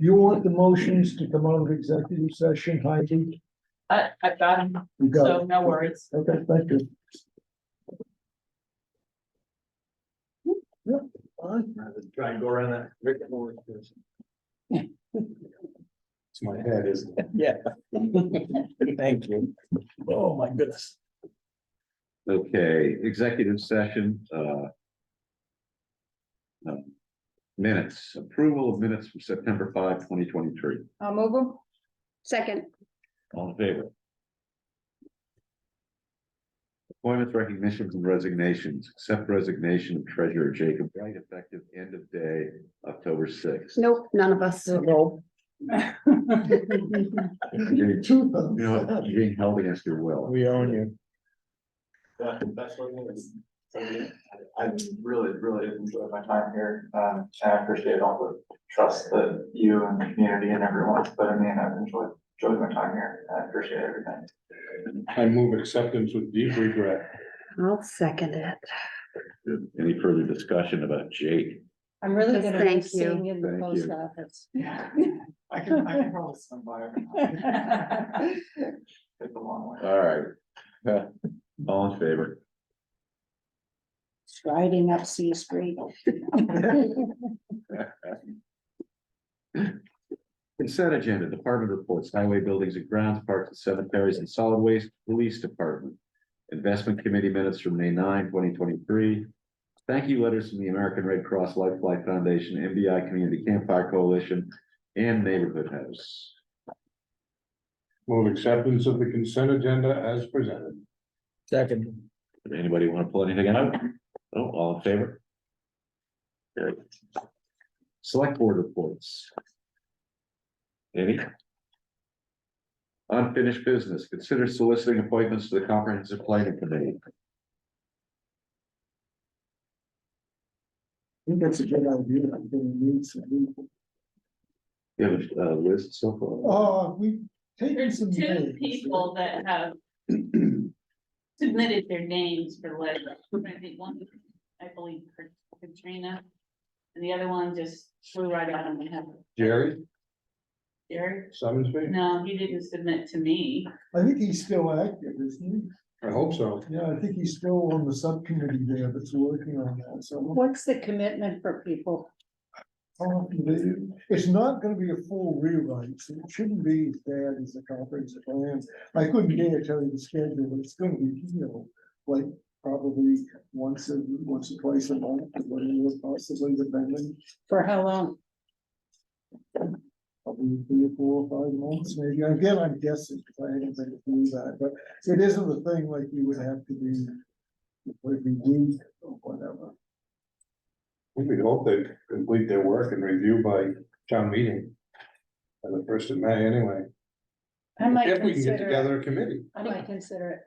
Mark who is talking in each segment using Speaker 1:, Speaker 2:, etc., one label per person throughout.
Speaker 1: You want the motions to come out of executive session, Heidi?
Speaker 2: I, I've got them,
Speaker 1: You got
Speaker 2: so
Speaker 1: it.
Speaker 2: no worries.
Speaker 1: Okay, thank you. Yep, I
Speaker 3: Try and go around that. Rick Moore. It's my head, isn't it?
Speaker 4: Yeah. Thank you.
Speaker 3: Oh, my goodness.
Speaker 5: Okay, executive session, uh. um, Minutes, approval of minutes from September 5, 2023.
Speaker 6: I'll move them. Second,
Speaker 5: all in favor? Appointments, recognitions and resignations, accept resignation of treasurer Jacob Wright effective end of day, October sixth.
Speaker 6: nope, none of us.
Speaker 1: don't know.
Speaker 5: You
Speaker 1: Two
Speaker 5: know,
Speaker 1: thumbs.
Speaker 5: you're being held against your will.
Speaker 4: We own you.
Speaker 3: That's what it is. I really, really enjoyed my time here, um, and I appreciate all the trust that you and the community and everyone's put in me, and I've enjoyed, enjoyed my time here, and I appreciate everything.
Speaker 7: I move acceptance with deep regret.
Speaker 6: I'll second it.
Speaker 5: Any further discussion about Jake?
Speaker 2: I'm really good at
Speaker 6: Thank you.
Speaker 2: seeing in the
Speaker 5: Thank
Speaker 2: post
Speaker 5: you.
Speaker 2: office.
Speaker 3: Yeah. I can, I can probably swim by. every now and then. It's a long way.
Speaker 5: All right. Uh, All in favor?
Speaker 6: Striding up C Street.
Speaker 5: Consent agenda, department reports, highway buildings and grounds, parks and cemeteries and solid waste, police department. Investment committee minutes from May 9, 2023. Thank you letters from the American Red Cross Life Flight Foundation, MBI Community Campfire Coalition, and Neighborhood House.
Speaker 7: Move acceptance of the consent agenda as presented.
Speaker 4: Second.
Speaker 5: Did anybody want to pull anything out? No, all in favor? Good. Select board reports. Any? Unfinished business, consider soliciting appointments to the comprehensive planning committee.
Speaker 1: think that's a good idea. I'm gonna need some people.
Speaker 5: You have a uh, list so
Speaker 6: Oh.
Speaker 5: far?
Speaker 1: Uh, we've taken
Speaker 2: There's
Speaker 1: some.
Speaker 2: two
Speaker 1: names.
Speaker 2: people that have submitted their names for lead. I think one, I believe Katrina. And the other one just flew right out of my head.
Speaker 7: Jerry
Speaker 2: Derek,
Speaker 7: Summonsby?
Speaker 2: no, he didn't submit to me.
Speaker 1: I think he's still active, isn't
Speaker 7: I hope so.
Speaker 1: he? Yeah, I think he's still on the subcommittee there that's working on that, so.
Speaker 6: What's the commitment for people?
Speaker 1: I'll have to do- It's not gonna be a full rewrite, so it shouldn't be as bad as the comprehensive plan. I couldn't dare tell you the schedule, but it's gonna be, you know, like probably once a, once or twice a month, whatever possibly depending.
Speaker 6: For how long?
Speaker 1: probably three or four or five months, maybe. Again, I'm guessing, because I haven't been to do that, but it isn't the thing like you would have to be every week or whatever.
Speaker 7: We hope they complete their work and review by town meeting. By the first of May anyway.
Speaker 6: I might
Speaker 7: If we can get
Speaker 6: consider it.
Speaker 7: together a committee.
Speaker 6: I might consider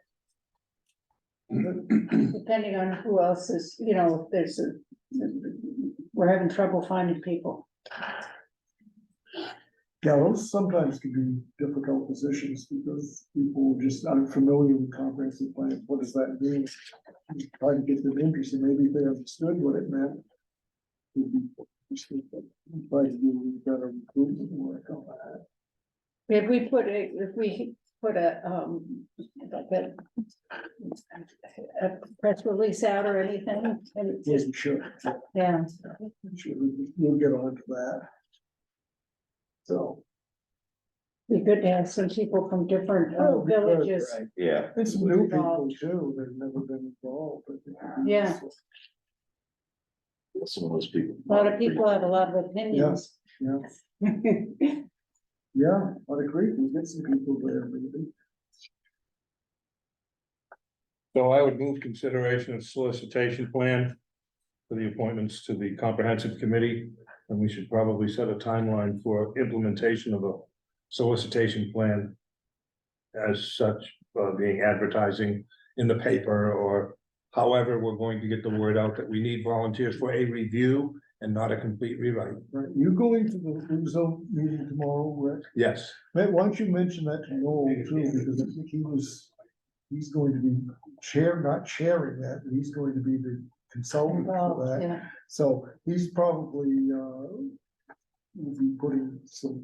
Speaker 6: it. Depending on who else is, you know, if there's a, we're having trouble finding people.
Speaker 1: Yeah, those sometimes can be difficult positions because people just aren't familiar with comprehensive plans. What does that mean? Try to get them interested, maybe if they understood what it meant. it'd be- Try to do better recruitment work on that.
Speaker 6: If we put a, if we put a, um, like a a press release out or anything, and it just,
Speaker 1: Wasn't sure.
Speaker 6: yeah.
Speaker 1: Sure, we- we'll get on to that. So.
Speaker 6: Be good to have some people from different uh,
Speaker 1: Oh, because,
Speaker 6: villages.
Speaker 1: right,
Speaker 5: Yeah.
Speaker 1: It's new people
Speaker 6: Involved.
Speaker 1: too, they've never been involved, but. they could be
Speaker 6: Yeah.
Speaker 1: useful.
Speaker 5: Some of those people.
Speaker 6: A lot of people have a lot of opinions.
Speaker 1: Yeah, yeah, I'd agree, we get some people there, maybe.
Speaker 7: So I would move consideration of solicitation plan. For the appointments to the comprehensive committee, and we should probably set a timeline for implementation of a solicitation plan. As such, uh, being advertising in the paper or however, we're going to get the word out that we need volunteers for a review. And not a complete rewrite,
Speaker 1: Right, you going to the Blue Zone meeting tomorrow, Rick?
Speaker 7: yes,
Speaker 1: Matt, why don't you mention that to Noel too, because I think he was, he's going to be chair, not chairing that, but he's going to be the consultant for
Speaker 6: Well,
Speaker 1: that.
Speaker 6: yeah.
Speaker 1: So he's probably, uh, we'll be putting some